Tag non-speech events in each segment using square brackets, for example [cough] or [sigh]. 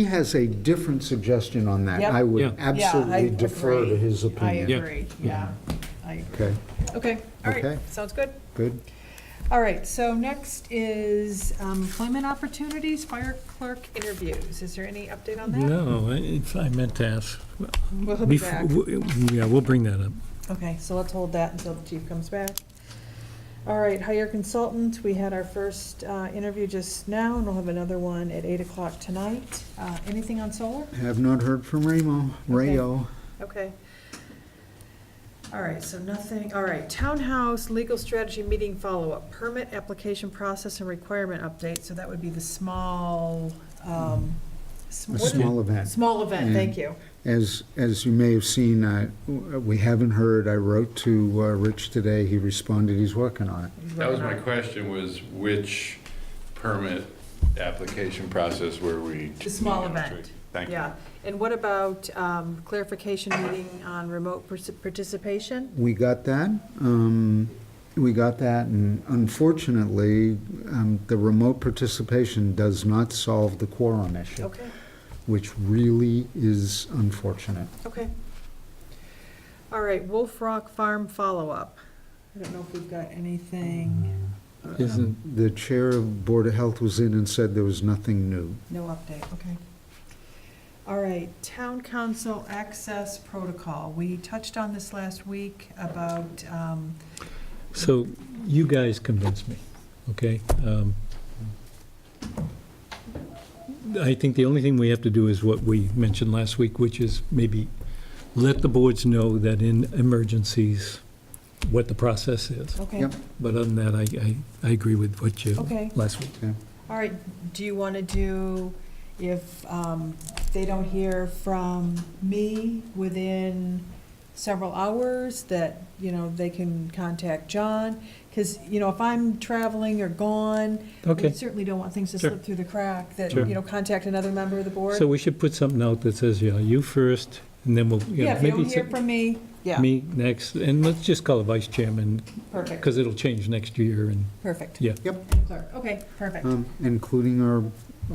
He has a different suggestion on that. Yep. I Yeah. would Yeah, I absolutely defer to agree. his I opinion. Yeah. agree, yeah, I agree. Okay, Okay, all Okay. right, sounds good. good. All right, so next is um, employment opportunities, fire clerk interviews. Is there any update on that? No, it's, I meant to ask. We'll he'll be Bef- back. w- Yeah, we'll bring that up. Okay, so let's hold that until the chief comes back. All right, hire consultant, we had our first uh, interview just now, and we'll have another one at eight o'clock tonight. Uh, Anything on solar? Have not heard from Ramo, Rayo. Okay. All right, so nothing, all right, townhouse legal strategy meeting follow-up, permit application process and requirement update, so that would be the small, um, sm- A what is it? small event. Small event, thank you. As, as you may have seen, uh, we haven't heard, I wrote to uh, Rich today, he responded, he's working on it. Mm-hmm. That was my question, was which permit application process were we? The small event. Thank you. Yeah, and what about um, clarification meeting on remote partic- participation? We got that, um, we got that, and unfortunately, um, the remote participation does not solve the quorum issue, Okay, which really is unfortunate. okay. All right, Wolf Rock Farm follow-up. I don't know if we've got anything, Isn't, The chair of Board of Health was in and said there was nothing new. no update, okay. All right, Town Council Access Protocol. We touched on this last week about, um, so you guys convinced me, okay? Um, I think the only thing we have to do is what we mentioned last week, which is maybe let the boards know that in emergencies, what the process is. okay, Yep. But other than that, I, I, I agree with what you, okay. last week. All right, do you want to do, if um, they don't hear from me within several hours, that, you know, they can contact John? Because, you know, if I'm traveling or gone, we Okay, certainly don't want things to Sure. slip through the crack, that, Sure. you know, contact another member of the board. so we should put something out that says, you know, you first, and then we'll, you Yeah, know, if you maybe don't hear it's from me, yeah, me next, and let's just call a vice chairman, perfect, because it'll change next year, and, perfect. Yeah. Yep. Clerk, Okay, perfect. Um, Including our,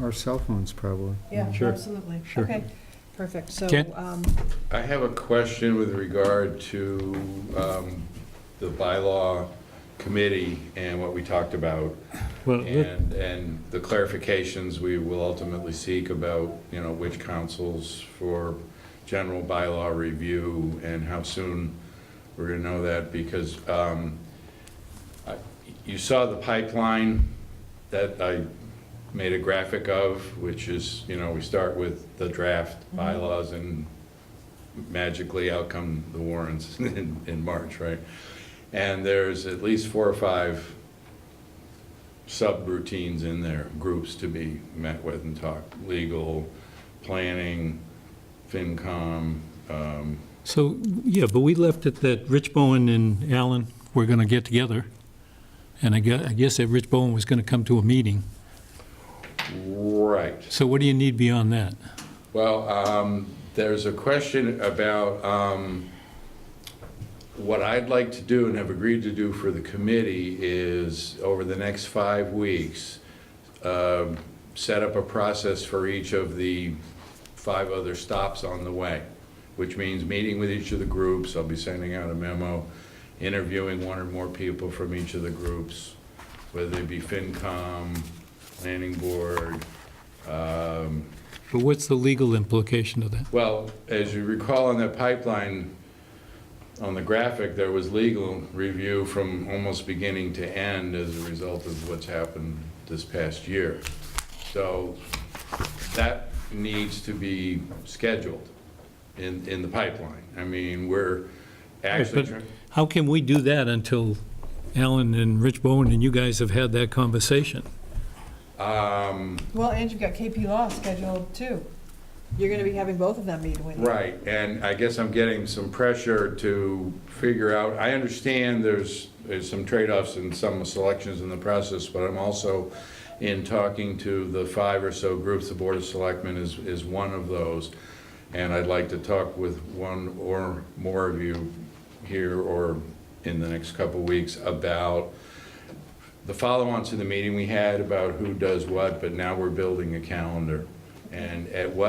our cell phones, probably. Yeah, Sure. absolutely. Sure. Okay, perfect. So, Ken? um, I have a question with regard to um, the bylaw committee and what we talked about, well, let- and, and the clarifications we will ultimately seek about, you know, which councils for general bylaw review and how soon we're gonna know that, because um, I- you saw the pipeline that I made a graphic of, which is, you know, we start with the draft bylaws and magically out come the warrants [laughs] in, in March, right? And there's at least four or five subroutines in there, groups to be met with and talked, legal, planning, FinCom, um, so, yeah, but we left it that Rich Bowen and Alan were going to get together, and I guess, I guess that Rich Bowen was going to come to a meeting, right. so what do you need beyond that? Well, um, there's a question about um, what I'd like to do and have agreed to do for the committee is, over the next five weeks, um, set up a process for each of the five other stops on the way, which means meeting with each of the groups, I'll be sending out a memo, interviewing one or more people from each of the groups, whether it be FinCom, Planning Board, um, But what's the legal implication of that? well, as you recall in that pipeline, on the graphic, there was legal review from almost beginning to end as a result of what's happened this past year. So that needs to be scheduled in, in the pipeline. I mean, we're actually. But trying- How can we do that until Alan and Rich Bowen and you guys have had that conversation? um, well, and you've got KP Law scheduled too. You're going to be having both of them meet with Right, and I guess I'm getting some pressure to figure out, I understand there's, there's some trade-offs and some selections in the process, but I'm also in talking to the five or so groups, the Board of Selectmen is, is one of those. And I'd like to talk with one or more of you here or in the next couple of weeks about the follow-on to the meeting we had about who does what, but now we're building a calendar. and at what